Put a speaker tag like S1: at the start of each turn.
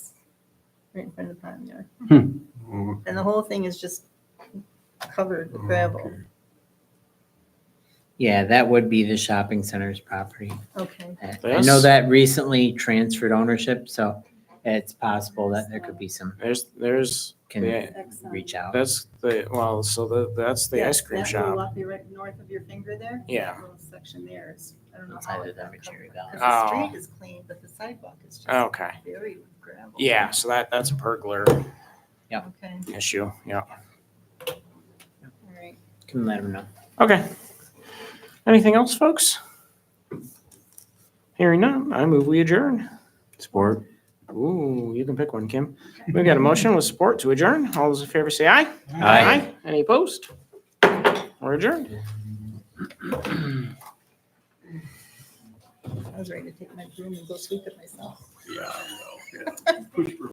S1: right in front of the pond yard.
S2: Oh,
S1: And the whole thing is just covered with gravel.
S2: okay.
S3: Yeah, that would be the shopping center's property.
S1: Okay,
S3: I I know
S4: Yes.
S3: that recently transferred ownership, so it's possible that there could be some,
S4: There's, there's,
S3: can
S4: Yeah.
S3: reach out.
S4: that's the, well, so the, that's the
S1: Yeah,
S4: ice cream
S1: that little
S4: shop.
S1: up your right north of your finger there.
S4: Yeah.
S1: that Little section there is, I don't know
S3: Inside
S1: how
S3: of
S1: it
S3: the
S1: got
S3: Cherry
S1: covered.
S3: Valley.
S1: 'Cause the
S4: Oh.
S1: street is clean, but the sidewalk is just
S4: Okay.
S1: buried with gravel.
S4: Yeah, so that, that's a pergola
S1: Okay,
S4: issue. Yeah.
S1: all right.
S3: Can let them know.
S4: Okay. Anything else, folks? Hearing none, I move we adjourn.
S2: Support.
S4: Ooh, you can pick one, Kim. We've got a motion with support to adjourn. All those in favor say aye. Any opposed? We're adjourned.
S1: I was ready to take my broom and go sweep it myself.
S2: Yeah, I know, yeah. Push for